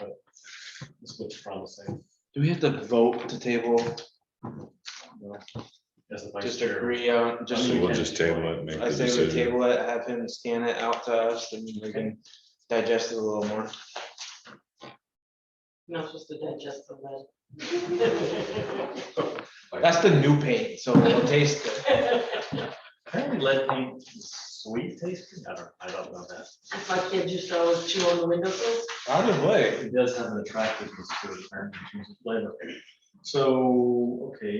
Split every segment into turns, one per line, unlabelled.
but this looks promising.
Do we have to vote to table,
As the vice
just
chair.
agree on, just,
I mean,
We'll just table it, and make
I
the
say we
decision.
table it, have him scan it out to us, and we can digest it a little more.
Not supposed to digest the lead.
That's the new paint, so we'll taste it.
Apparently lead paint is sweet tasting, I don't, I don't know that.
If my kid used to always chew on the windowsills,
Probably.
It does have an attractiveness to it, apparently, in terms of flavor. So, okay,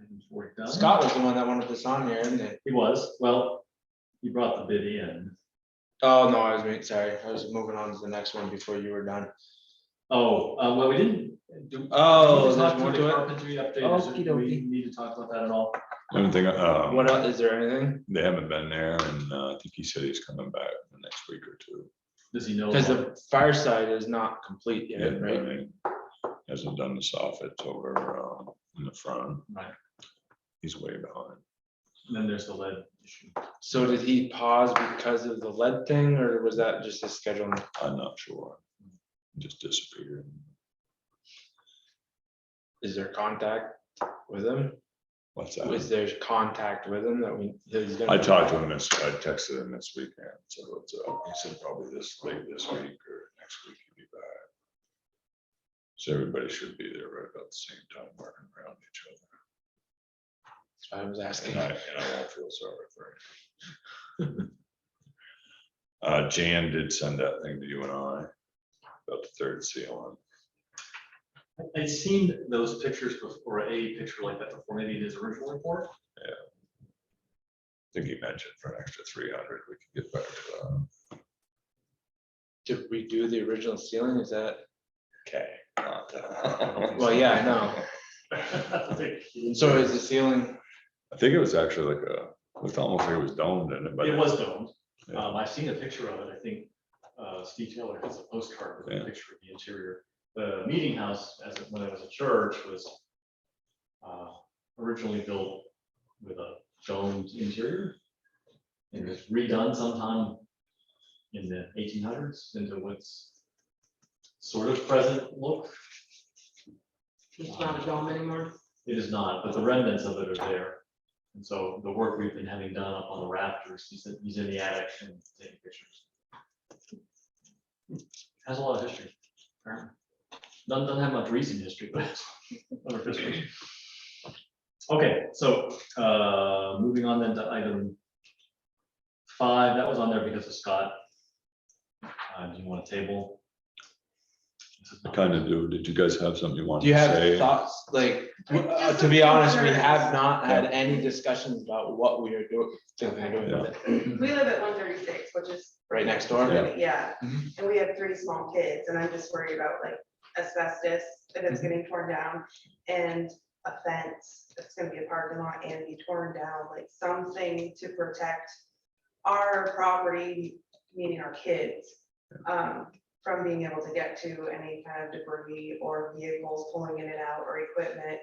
item four done.
Scott was the one that wanted this on here, isn't it?
He was, well, he brought the bid in.
Oh, no, I was, being- sorry, I was moving on to the next one before you were done.
Oh, uh, well, we didn't. do-
Oh,
We
there's
talked
more
the
to it?
Carpentry update,
Okie
do we
dokie.
need to talk about that at all?
I don't think, uh,
What else, is there anything?
they haven't been there, and uh, I think he said he's coming back the next week or two.
Does he know?
Because
about-
the fireside is not complete
Yeah,
yet, right?
Hasn't done the soffits over uh, in the front.
Right.
He's way behind.
And Then there's the lead issue.
So did he pause because of the lead thing, or was that just his scheduling?
I'm not sure. Just disappeared.
Is there contact with him?
What's
Is
that?
there contact with him that we? that he's gonna-
I talked to him this, I texted him this weekend, so it's, uh, he said probably this late this week or next week he'll be back. So everybody should be there right about the same time, working around each other.
That's what I was asking.
And I, and I won't feel sorry for him. Uh, Jan did send that thing to you and I about the third seal
I- I'd seen those pictures before, a picture like that before, maybe in his original report.
I think he mentioned for an extra three hundred, we could get better uh, to that.
Did we do the original ceiling? Is that,
Okay.
well, yeah, I know. So is the ceiling,
I think it was actually like a, looked almost like it was domed in it, but.
It was domed.
Yeah.
Um, I've seen a picture of it. I think, uh, Steve Taylor has a postcard with a
Yeah.
picture of the interior. The meeting house, as it- when it was a church, was, uh, originally built with a domed interior. And was redone sometime in the eighteen hundreds into what's sort of present look.
it's not a dome anymore.
It is not, but the remnants of it are there. And so the work we've been having done up on the rafters, he's, in- he's in the attic and taking pictures. Has a lot of history. apparently. Doesn't, doesn't have much recent history, but. it's a lot of history. Okay, so, uh, moving on then to item five, that was on there because of Scott. Uh, do you want to table?
Kind of do, did you guys have something you wanted
do you
to
have
say?
thoughts, like, w- uh,
Just
to be
some
honest, we
concerns.
have not had any discussions about what we are doing, thinking of doing with it.
We live at one thirty-six, which is.
Right next door?
Yeah.
Yeah,
Mhm.
and we have three small kids, and I'm just worried about like asbestos, if it's getting torn down, and a fence, that's gonna be a parking lot and be torn down, like something to protect our property, meaning our kids, um, from being able to get to any kind of debris or vehicles pulling in and out or equipment.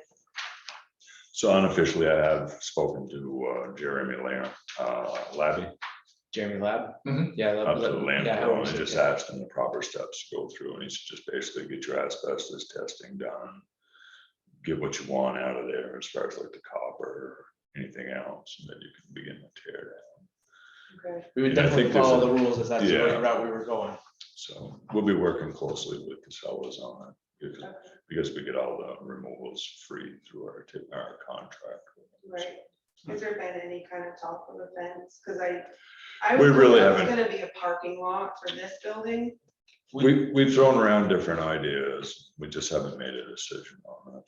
So unofficially, I have spoken to uh, Jeremy Lam, uh, Labby,
Jeremy Lab?
Mm-hmm.
Mhm.
Yeah. that-
up to the
that-
land,
yeah, I
and
was
just
thinking.
asked him the proper steps to go through, and he said, just basically get your asbestos testing done. Get what you want out of there as far as like the copper, anything else, and then you can begin to tear down.
Okay.
We would
And I
definitely
think there's
follow
a-
the rules if that's the
Yeah.
route we were going.
So we'll be working closely with the fellows on it, because- because we get all the removals free through our, tip- our contract.
Right, has there been any kind of talk of events, cause I. I
We
was
really
told It's
haven't.
gonna be a parking lot for this building,
We, we've thrown around different ideas, we just haven't made a decision on that.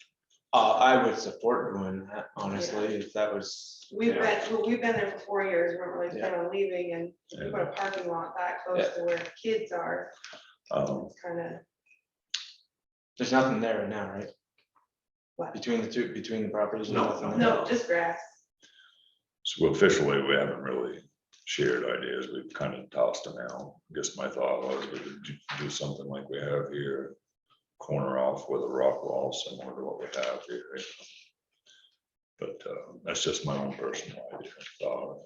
Uh, I would support doing that, honestly, if that was.
we've
yeah.
been, well, we've been there for four years, we weren't really
Yeah.
planning on leaving, and we
And,
put a parking lot that close to where kids are,
um,
it's kinda.
There's nothing there right now, right?
What?
Between the two, between the properties? there's
No,
nothing there?
No, just grass,
So officially, we haven't really shared ideas. We've kind of tossed them out. I Guess my thought was we could do- do something like we have here. Corner off with a rock wall similar to what we have here. But uh, that's just my own personal idea. thought.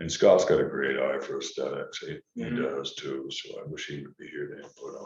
And Scott's got a great eye for aesthetics. He, he
Mhm.
does too. So I wish he would be here to input on.